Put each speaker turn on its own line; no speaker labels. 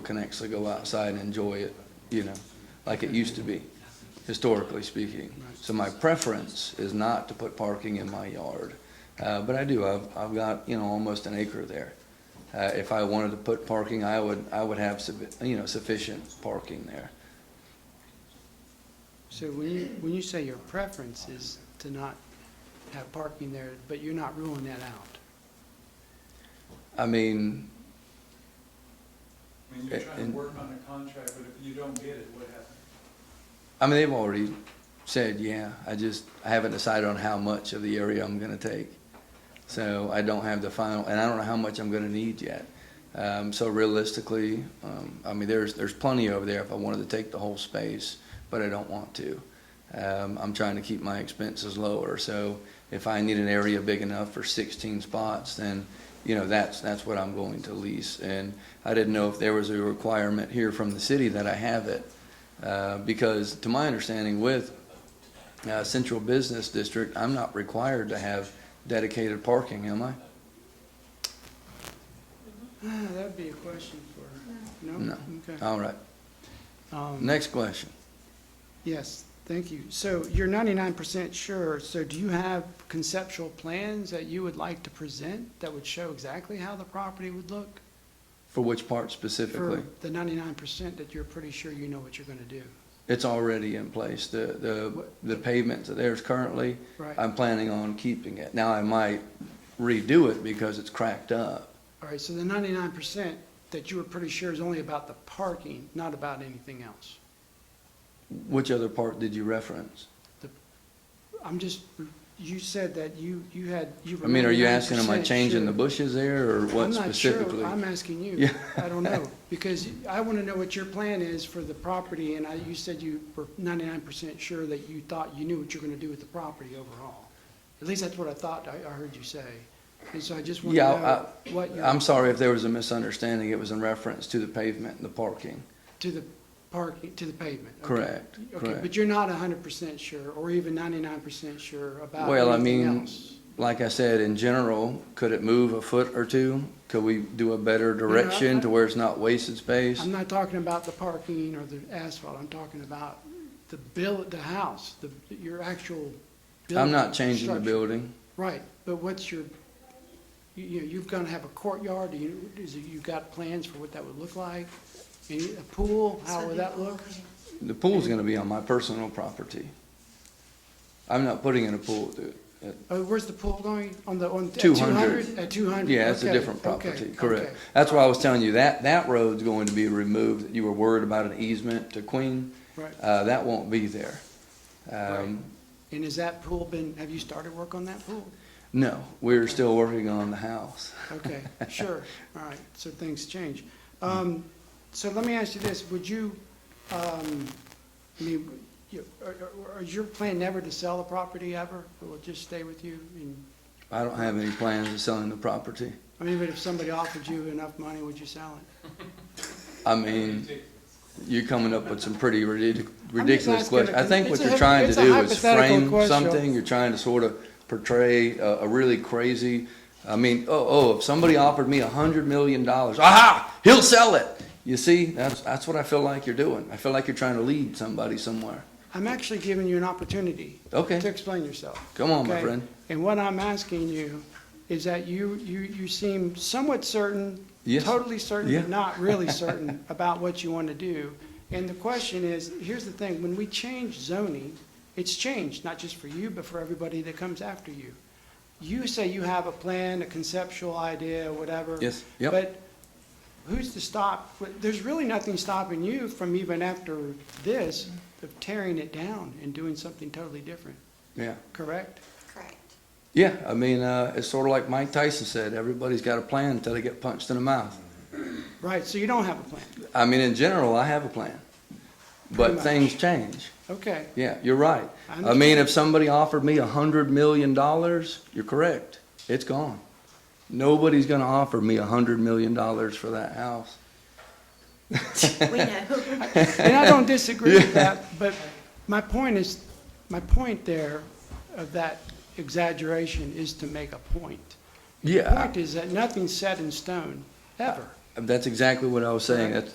can actually go outside and enjoy it, you know, like it used to be, historically speaking. So my preference is not to put parking in my yard, uh, but I do, I've, I've got, you know, almost an acre there. Uh, if I wanted to put parking, I would, I would have, suffi- you know, sufficient parking there.
So when you, when you say your preference is to not have parking there, but you're not ruling that out?
I mean,
I mean, you're
A-
trying
and-
to work on a contract, but if you don't get it, what happens?
I mean, they've already said, yeah, I just, I haven't decided on how much of the area I'm gonna take. So I don't have the final, and I don't know how much I'm gonna need yet. Um, so realistically, um, I mean, there's, there's plenty over there if I wanted to take the whole space, but I don't want to. Um, I'm trying to keep my expenses lower, so if I need an area big enough for sixteen spots, then, you know, that's, that's what I'm going to lease. And I didn't know if there was a requirement here from the city that I have it. Uh, because to my understanding with uh, Central Business District, I'm not required to have dedicated parking, am I?
Ah, That'd be a question for, no?
No. Uh,
Okay.
All right,
Um,
next question.
Yes, thank you. So you're ninety-nine percent sure, so do you have conceptual plans that you would like to present that would show exactly how the property would look?
For which part
For
specifically?
the ninety-nine percent that you're pretty sure you know what you're gonna do,
It's already in place, the, the, the pavement that there's currently,
right?
I'm planning on keeping it. Now, I might redo it because it's cracked up.
All right, so the ninety-nine percent that you were pretty sure is only about the parking, not about anything else?
Which other part did you reference?
I'm just, you said that you, you had, you were.
I mean, are you asking, am I
99%
changing the
sure.
bushes there, or what
I'm
specifically?
not sure, I'm asking you.
Yeah.
I don't know, because I want to know what your plan is for the property, and I, you said you were ninety-nine percent sure that you thought you knew what you were going to do with the property overall. At least that's what I thought I, I heard you say, and so I just want to
Yeah,
know what your,
I'm sorry if there was a misunderstanding, it was in reference to the pavement and the parking.
to the parking, to the pavement. okay.
Correct,
Okay,
correct.
but you're not hundred percent sure, or even ninety-nine percent sure about
Well, I
anything
mean,
else?
like I said, in general, could it move a foot or two? Could we do a better
I-
direction to where it's not wasted space?
I'm not talking about the parking or the asphalt, I'm talking about the bill, the house, the, your actual building.
I'm not changing the
structure.
building.
Right, but what's your, you, you- you've gonna have a courtyard, do you, is, it- you got plans for what that would look like? Any- A pool, how would that look?
The pool's gonna be on my personal property. I'm not putting in a pool, uh, dude.
Oh, where's the pool going, on the, on?
Two
At two hundred?
Yeah, it's a different property, correct. That's why I was telling you, that, that road's going to be removed. You were worried about an easement to Queen.
Right,
Uh, that won't be there. Um,
and has that pool been, have you started work on that pool?
no, we're still working on the house.
Okay, sure, all right, so things change.
Mm-hmm.
Um, so let me ask you this, would you, um, I mean, you, are, are- are your plan never to sell the property ever? It will just stay with you and,
I don't have any plans of selling the property.
I mean, but if somebody offered you enough money, would you sell it?
I mean, you're coming up with some pretty ridic- ridiculous
asking a
questions. I think what
con-
you're
it's a
trying to
hypo-
do
it's
is
a hypothetical
frame
question.
something, you're trying to sort of portray a, a really crazy, I mean, oh, oh, if somebody offered me a hundred million dollars, aha, he'll sell it. You see, that's, that's what I feel like you're doing. I feel like you're trying to lead somebody somewhere.
I'm actually giving you an opportunity to
Okay,
explain yourself.
come on, my
Okay.
friend.
And what I'm asking you is that you, you, you seem somewhat certain,
Yes.
totally certain,
Yeah.
but not really certain about what you want to do. And the question is, here's the thing, when we change zoning, it's changed, not just for you, but for everybody that comes after you. You say you have a plan, a conceptual idea, whatever.
Yes, yep.
But who's to stop? There's really nothing stopping you from even after this, of tearing it down and doing something totally different,
Yeah,
correct?
Correct.
yeah, I mean, uh, it's sort of like Mike Tyson said, everybody's got a plan until they get punched in the mouth.
Right, so you don't have a plan.
I mean, in general, I have a plan,
Pretty
but
much.
things change.
Okay,
Yeah, you're right.
I
I mean,
understand.
if somebody offered me a hundred million dollars, you're correct. It's gone. Nobody's gonna offer me a hundred million dollars for that house.
We know.
and I don't disagree with that, but my point is, my point there of that exaggeration is to make a point. The
Yeah,
Point is that nothing's set in stone, ever.
that's exactly what I was saying.
Correct.
That's,